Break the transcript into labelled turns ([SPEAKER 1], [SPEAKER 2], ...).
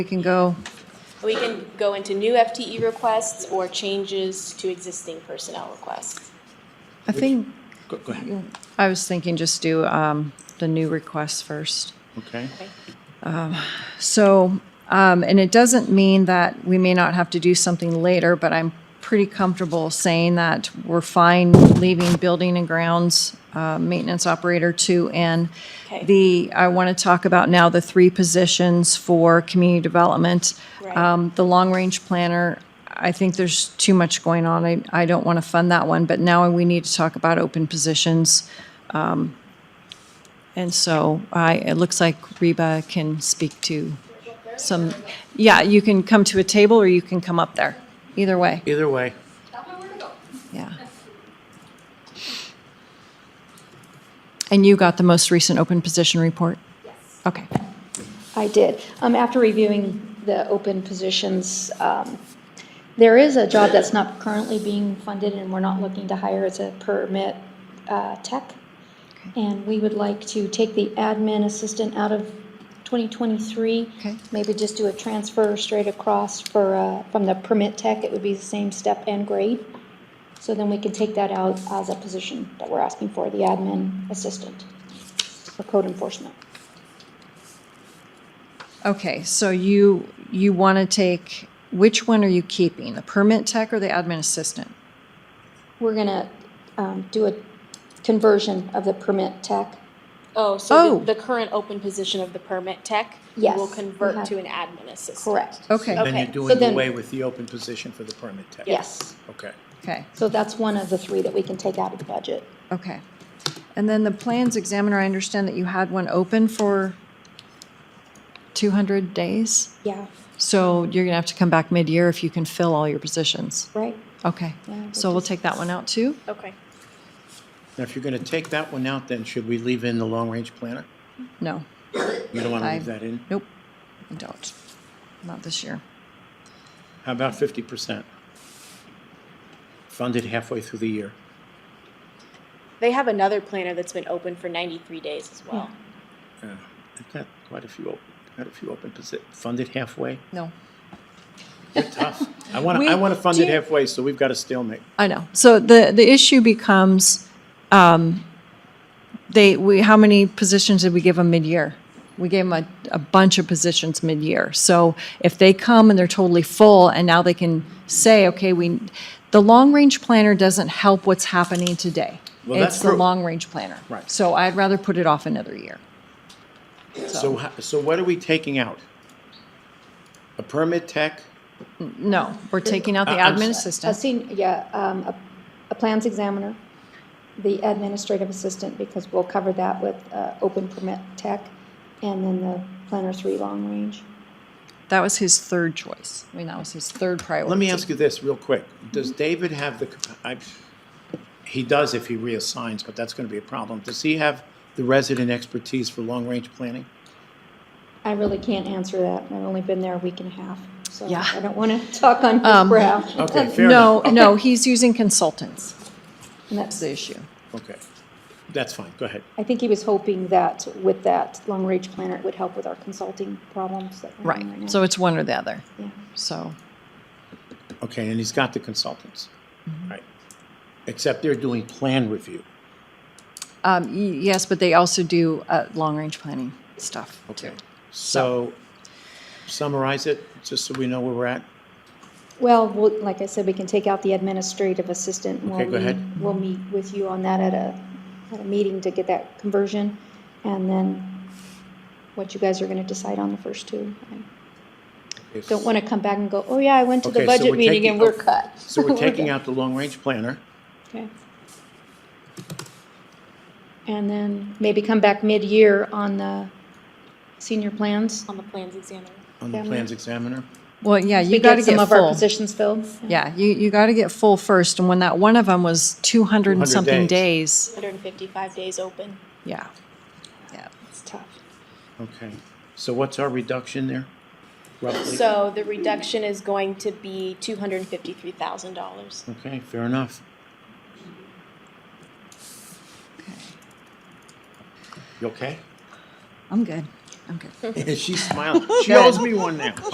[SPEAKER 1] We can go,
[SPEAKER 2] We can go into new FTE requests or changes to existing personnel requests.
[SPEAKER 1] I think,
[SPEAKER 3] Go, go ahead.
[SPEAKER 1] I was thinking just do um, the new requests first.
[SPEAKER 3] Okay.
[SPEAKER 1] So, um, and it doesn't mean that we may not have to do something later, but I'm pretty comfortable saying that we're fine leaving building and grounds, uh, maintenance operator two and
[SPEAKER 2] Okay.
[SPEAKER 1] the, I want to talk about now the three positions for community development.
[SPEAKER 2] Right.
[SPEAKER 1] Um, the long-range planner, I think there's too much going on. I, I don't want to fund that one, but now we need to talk about open positions. And so I, it looks like Reba can speak to some, yeah, you can come to a table or you can come up there. Either way,
[SPEAKER 3] Either way,
[SPEAKER 1] yeah. And you got the most recent open position report? Yes. Okay.
[SPEAKER 4] I did. Um, After reviewing the open positions, um, there is a job that's not currently being funded and we're not looking to hire as a permit uh, tech. And we would like to take the admin assistant out of 2023.
[SPEAKER 1] Okay.
[SPEAKER 4] Maybe just do a transfer straight across for, uh, from the permit tech. It would be the same step and grade. So then we can take that out as a position that we're asking for, the admin assistant for code enforcement.
[SPEAKER 1] Okay, so you, you want to take, which one are you keeping? The permit tech or the admin assistant?
[SPEAKER 4] We're gonna um, do a conversion of the permit tech.
[SPEAKER 2] Oh, so
[SPEAKER 1] Oh.
[SPEAKER 2] the, the current open position of the permit tech
[SPEAKER 4] Yes,
[SPEAKER 2] will
[SPEAKER 4] we
[SPEAKER 2] convert
[SPEAKER 4] have-
[SPEAKER 2] to an admin assistant.
[SPEAKER 4] Correct.
[SPEAKER 1] Okay,
[SPEAKER 3] then you're
[SPEAKER 2] Okay,
[SPEAKER 4] so
[SPEAKER 3] doing
[SPEAKER 4] then-
[SPEAKER 3] away with the open position for the permit tech.
[SPEAKER 4] Yes.
[SPEAKER 3] Okay.
[SPEAKER 1] okay.
[SPEAKER 4] So that's one of the three that we can take out of the budget.
[SPEAKER 1] Okay. And then the plans examiner, I understand that you had one open for 200 days?
[SPEAKER 4] Yeah,
[SPEAKER 1] So you're going to have to come back mid-year if you can fill all your positions.
[SPEAKER 4] right.
[SPEAKER 1] Okay.
[SPEAKER 4] Yeah, we
[SPEAKER 1] So we'll
[SPEAKER 4] just-
[SPEAKER 1] take that one out too?
[SPEAKER 2] Okay.
[SPEAKER 3] Now, if you're going to take that one out, then should we leave in the long-range planner?
[SPEAKER 1] No.
[SPEAKER 3] You don't want to
[SPEAKER 1] I-
[SPEAKER 3] leave that in?
[SPEAKER 1] Nope, I don't. Not this year.
[SPEAKER 3] How about fifty percent? Funded halfway through the year.
[SPEAKER 2] They have another planner that's been open for 93 days as well.
[SPEAKER 3] Uh, I've got quite a few, op- quite a few open posi- funded halfway?
[SPEAKER 1] No.
[SPEAKER 3] You're tough. I want
[SPEAKER 1] We-
[SPEAKER 3] to, I want to fund
[SPEAKER 1] do
[SPEAKER 3] it
[SPEAKER 1] you-
[SPEAKER 3] halfway, so we've got a stalemate.
[SPEAKER 1] I know. So the, the issue becomes, um, they, we, how many positions did we give them mid-year? We gave them a, a bunch of positions mid-year. So if they come and they're totally full and now they can say, okay, we, the long-range planner doesn't help what's happening today.
[SPEAKER 3] Well, that's
[SPEAKER 1] It's the
[SPEAKER 3] true.
[SPEAKER 1] long-range planner.
[SPEAKER 3] Right.
[SPEAKER 1] So I'd rather put it off another year.
[SPEAKER 3] So, ho- so what are we taking out? A permit tech?
[SPEAKER 1] No, we're taking out the
[SPEAKER 3] I- Uh, I'm
[SPEAKER 1] admin
[SPEAKER 3] s-
[SPEAKER 4] A
[SPEAKER 1] assistant.
[SPEAKER 4] senior, yeah, um, a, a plans examiner, the administrative assistant, because we'll cover that with uh, open permit tech, and then the planner three long range.
[SPEAKER 1] That was his third choice. I mean, that was his third priority.
[SPEAKER 3] Let me ask you this real quick. Does
[SPEAKER 4] Mm-hmm.
[SPEAKER 3] David have the, capa- I, he does if he reassigns, but that's going to be a problem. Does he have the resident expertise for long-range planning?
[SPEAKER 4] I really can't answer that. I've only been there a week and a half, so
[SPEAKER 1] Yeah. Um,
[SPEAKER 4] I don't want to talk on his brow.
[SPEAKER 3] Okay, fair
[SPEAKER 1] No,
[SPEAKER 3] enough.
[SPEAKER 1] no, he's using consultants.
[SPEAKER 4] And
[SPEAKER 1] That's
[SPEAKER 4] that's-
[SPEAKER 1] the issue.
[SPEAKER 3] Okay, that's fine, go ahead.
[SPEAKER 4] I think he was hoping that with that long-range planner, it would help with our consulting problems that we're having right now.
[SPEAKER 1] Right. So it's one or the other.
[SPEAKER 4] Yeah.
[SPEAKER 1] So,
[SPEAKER 3] Okay, and he's got the consultants,
[SPEAKER 4] Mm-hmm.
[SPEAKER 3] right? Except they're doing plan review.
[SPEAKER 1] um, y- yes, but they also do, uh, long-range planning stuff too.
[SPEAKER 3] Okay. So summarize it, just so we know where we're at.
[SPEAKER 4] Well, we'll- like I said, we can take out the administrative assistant. and we'll
[SPEAKER 3] Okay, go
[SPEAKER 4] meet-
[SPEAKER 3] ahead.
[SPEAKER 4] We'll meet with you on that at a, at a meeting to get that conversion. And then what you guys are going to decide on the first two. I
[SPEAKER 3] If-
[SPEAKER 4] Don't want to come back and go, oh yeah, I went to
[SPEAKER 3] Okay,
[SPEAKER 4] the
[SPEAKER 3] so
[SPEAKER 4] budget
[SPEAKER 3] we're
[SPEAKER 4] meeting
[SPEAKER 3] taking-
[SPEAKER 4] and we're
[SPEAKER 3] oh,
[SPEAKER 4] cut.
[SPEAKER 3] So we're taking
[SPEAKER 4] good.
[SPEAKER 3] out the long-range planner.
[SPEAKER 4] Okay. And then maybe come back mid-year on the senior plans.
[SPEAKER 2] On the plans examiner.
[SPEAKER 3] on the
[SPEAKER 4] Examiner.
[SPEAKER 3] plans examiner.
[SPEAKER 1] Well, yeah,
[SPEAKER 4] We
[SPEAKER 1] you gotta
[SPEAKER 4] Some
[SPEAKER 1] get
[SPEAKER 4] of our
[SPEAKER 1] full.
[SPEAKER 4] positions filled.
[SPEAKER 1] Yeah, you, you gotta get full first. And when that, one of them was two hundred and
[SPEAKER 3] 200
[SPEAKER 1] something days.
[SPEAKER 2] 155 days open.
[SPEAKER 1] Yeah. Yeah.
[SPEAKER 4] It's tough.
[SPEAKER 3] Okay. So what's our reduction there? Roughly?
[SPEAKER 2] So the reduction is going to be $253,000.
[SPEAKER 3] Okay, fair enough. You okay?
[SPEAKER 1] I'm good. I'm good.
[SPEAKER 3] She's smiling. She owes me one now.